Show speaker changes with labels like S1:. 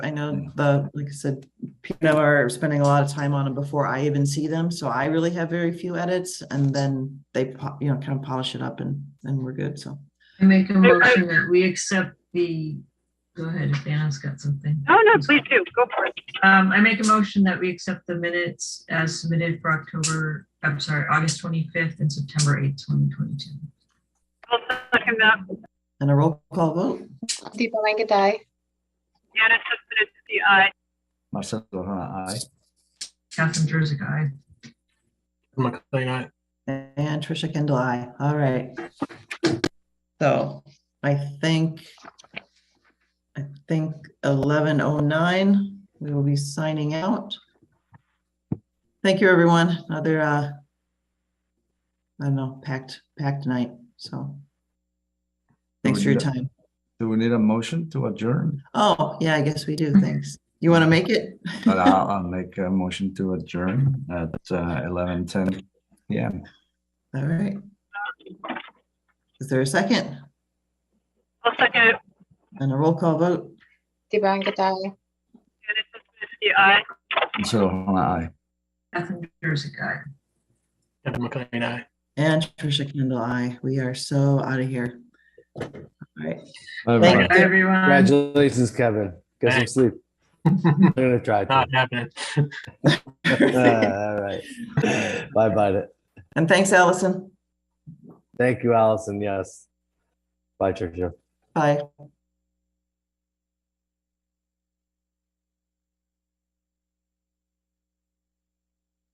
S1: I know the, like I said, P and O are spending a lot of time on them before I even see them, so I really have very few edits, and then they, po- you know, kind of polish it up and, and we're good, so.
S2: I make a motion that we accept the, go ahead, if Anna's got something.
S3: Oh, no, please do. Go for it.
S2: Um, I make a motion that we accept the minutes as submitted for October, I'm sorry, August twenty-fifth and September eighth, twenty twenty-two.
S3: I'll second that.
S1: And a roll call vote,
S4: Deepa Langadi,
S3: Anna Suspended to the eye.
S5: Marcelo Hona, aye.
S2: Catherine Jersey, aye.
S6: McLean, eh? aye.
S1: and Trisha Kendall, aye, all right. So I think, I think eleven oh nine, we will be signing out. Thank you, everyone, another, uh, I don't know, packed, packed night, so. Thanks for your time.
S5: Do we need a motion to adjourn?
S1: Oh, yeah, I guess we do. Thanks. You want to make it?
S5: But I'll, I'll make a motion to adjourn at uh, eleven ten. Yeah,
S1: All right. Is there a second
S3: I'll second it.
S1: and a roll call vote?
S4: Deepa Langadi,
S3: Anna Suspended to the eye.
S5: Marcelo Hona, aye.
S2: Catherine Jersey, aye.
S6: Kevin McLean, eh? aye.
S1: And Trisha Kendall, I. We are so out of here. All right.
S7: Bye-bye.
S2: Bye, everyone.
S7: Congratulations, Kevin. Get some
S6: Thanks.
S7: sleep. I'm gonna try. to.
S6: Not happening.
S7: All right. Bye bye.
S1: And thanks, Allison.
S7: Thank you, Allison. Yes. Bye, Tricia.
S1: Bye.